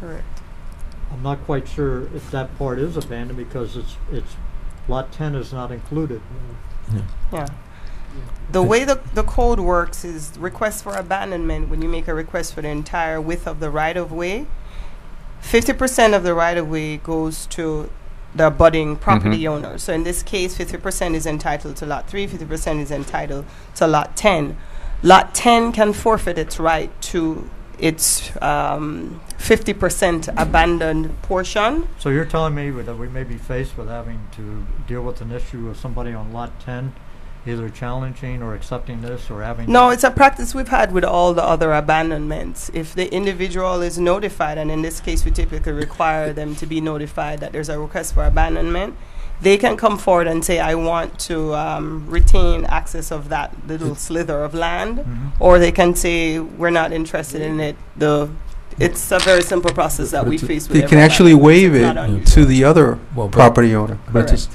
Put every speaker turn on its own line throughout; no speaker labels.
Correct.
I'm not quite sure if that part is abandoned because it's, it's, lot ten is not included.
Yeah.
Yeah. The way the, the code works is request for abandonment, when you make a request for the entire width of the right of way, fifty percent of the right of way goes to the budding property
Mhm.
owner. So in this case, fifty percent is entitled to lot three, fifty percent is entitled to lot ten. Lot ten can forfeit its right to its um fifty percent abandoned portion.
So you're telling me that we may be faced with having to deal with an issue of somebody on lot ten, either challenging or accepting this or having.
No, it's a practice we've had with all the other abandonments. If the individual is notified, and in this case, we typically require them to be notified that there's a request for abandonment, they can come forward and say, I want to um, retain access of that little slither of land.
Mhm.
Or they can say, we're not interested in it. The, it's a very simple process that we
But
face with
They can
every
actually
abandonment.
waive
It's not
it
unusual.
to the other
Well, but-
property owner.
but it's-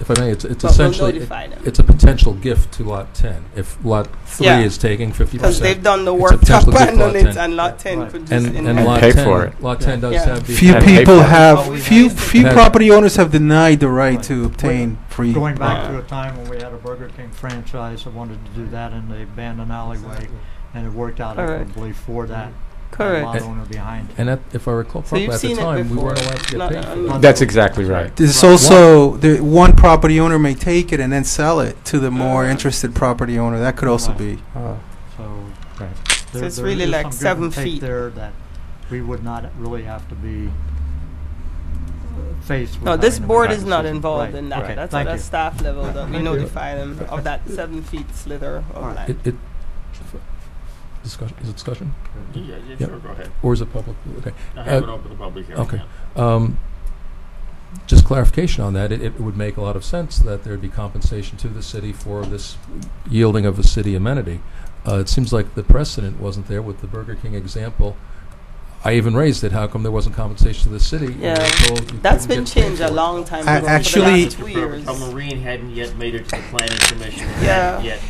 If I may, it's,
But
it's
we'll
essentially, it-
notify them.
it's a potential gift to lot ten. If lot three
Yeah.
is taking fifty
Because they've done
percent.
the
it's
work to
potential gift to lot
abandon it,
10.
and lot
Yeah,
10
right.
could just.
And,
inherit
and
And
lot
pay for
ten,
it.
lot ten does
Yeah.
have the.
Few
And
ability-
pay
people
for it.
Well,
have,
we've
few,
had-
few
Right.
property owners have denied the right to obtain free.
Going back to a time when we had a Burger King franchise that wanted to do that in the abandoned alleyway, and it worked out
Correct.
favorably for that lot
Correct.
owner behind.
And that, if I recall
So
properly,
you've
at the
seen it
time, we
before.
weren't allowed to
Not
get paid for
un-
that.
That's exactly right.
There's
Right.
also, the, one property owner may take it and then sell it to the more
Uh,
interested property owner. That could also
Right.
be. uh,
So.
Right.
there-
it's
there
really
is
like
some give
seven
and take
feet.
There that we would not really have to be uh, faced with.
No, this
having to
board
make
is not
decisions.
involved
Right,
in that.
okay,
That's
thank
at a
you.
staff level that we
Thank you.
notify them of that seven feet slither of
It,
land.
it, discussion, is it discussion?
Yeah, yeah,
Yep.
sure, go ahead.
Or is it public? Okay.
I have
Uh,
it open to public hearing.
okay.
yeah.
Um, just clarification on that. It, it would make a lot of sense that there'd be compensation to the city for this yielding of a city amenity. Uh, it seems like the precedent wasn't there with the Burger King example. I even raised it. How come there wasn't compensation to the city? We were
Yeah,
told you
That's been
couldn't get paid
changed a
for it.
long time
I
ago. for the
actually-
last two years.
A marine hadn't yet made it to the planning commission.
Yeah.
Yet.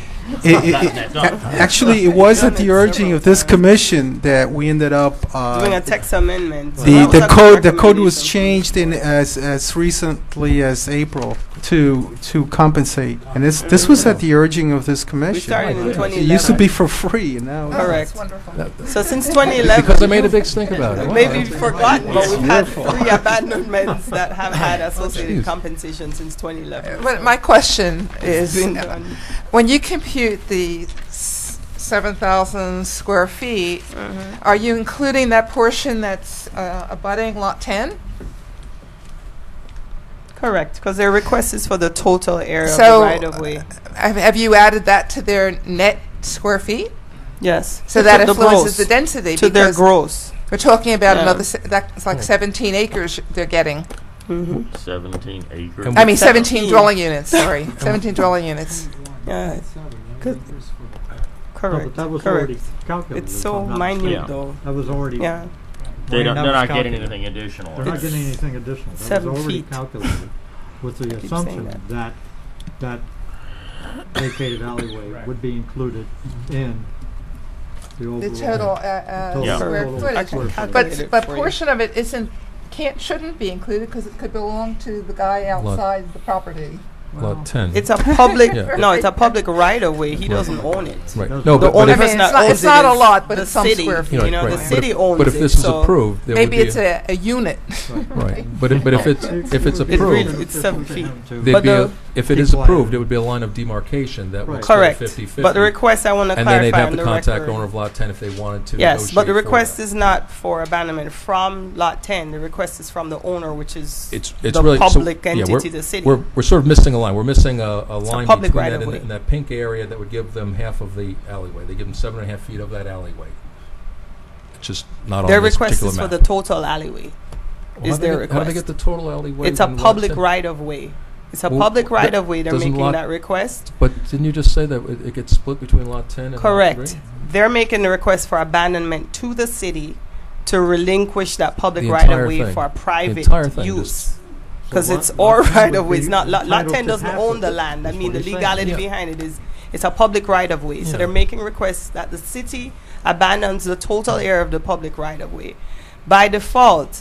It- it-
Not
it-
that
a-
done.
Actually, it was
Done
at the
it
urging
several
of this
times.
commission that we ended up,
Doing a
uh,
text amendment. So
the,
that was
the
a
code, the code was
recommendation.
changed in as, as recently as April to, to compensate. And this, this was at the urging of this
We
commission.
started in
It
It used
2011.
to be for free and now. it's-
Correct.
That- that-
So since
because I
2011,
made a big stink about it. Wow,
maybe
that's-
you've forgotten, but we've had
Wonderful.
three abandonments that have had associated
Jeez.
compensation since 2011.
But my question
It's
is,
been done.
when you compute the s- 7,000 square feet,
Mm-hmm.
are you including that portion that's uh, abutting Lot 10?
Correct, because their request is for the total area of the
So,
right of way.
Have have you added that to their net square feet?
Yes.
So that
The
influences
gross.
the density?
To their
because
gross.
We're talking about
Yeah.
another, se- that's like
Yeah.
17 acres they're getting.
Mhm.
Seventeen acres.
And
I mean,
17.
17 dwelling units, sorry, 17 dwelling units.
Yeah. Good.
No,
Correct.
but that was
correct.
already calculated.
It's
if
so
I'm not
minute
mistaken.
Yeah.
though.
That was already.
Yeah.
They
Wayne,
don't,
that
they're
was
not getting
calculated.
anything additional.
They're not
It's
getting anything additional. That
seven
was already
feet.
calculated with the
keep saying
assumption
that.
that that vacated alleyway would be included
Mm-hmm.
in the overall.
The total uh, uh,
total-
Yeah.
square
total
footage.
square footage.
Calculate
But
it
but
for you.
portion of it isn't can't shouldn't be included because it could belong to the guy outside the property.
Lot ten.
It's a public.
Yeah.
No, it's a public right of way. He doesn't own it.
Right.
Those
No,
are-
The
but, but
owner
if,
I
does
mean, it's
not
not-
own
it's
it,
not a lot, but
the
it's some
city,
square
you
feet.
know,
You know,
right.
the
But if-
city owns it.
but if this is
so
approved, there would
Maybe
be
it's
a,
a, a unit.
right. But if, but if it's if
It's
it's
really-
approved,
it's seven feet.
there'd
But
be a,
the-
if it is
Keep quiet.
approved, it would be a line of demarcation that would
Right.
split
Correct.
50-50.
But the request I want to
and then they'd
clarify
have
on
to
the
contact
record.
owner of lot ten if they wanted to.
Yes, but the
negotiate for
request
that.
is not for abandonment from lot ten. The request is from the owner, which is
It's it's
the
really so-
public
yeah,
entity,
we're-
the city.
We're we're sort of missing a line. We're missing a, a line
public
between
right
that
of
and,
way.
and that pink area that would give them half of the alleyway. They give them seven and a half feet of that alleyway. It's just not
their
on this
request
particular
is for
map.
the total alleyway. is
Well, how do they
their
get- How do they
request.
get the total alleyway?
It's a
in lot
public
10?
right of way. It's a
Well,
public
that
right of way. They're
doesn't
making
lot-
that request.
But didn't you just say that it, it gets split between lot ten and lot
Correct.
three?
They're making the request for abandonment to the city to relinquish that public
The
right of
entire
way
thing.
for private
entire thing,
use.
So
Because
lot-
it's
lot
our
10
right
would
of way.
be
It's not lot, lot
entitled
10
to
doesn't
half
own
of
the
it.
land. I
That's
mean,
what
the
he's saying.
legality
Yeah.
behind it is it's a public right of way. So
Yeah.
they're making requests that the city abandons the total area of the public right of way. by default,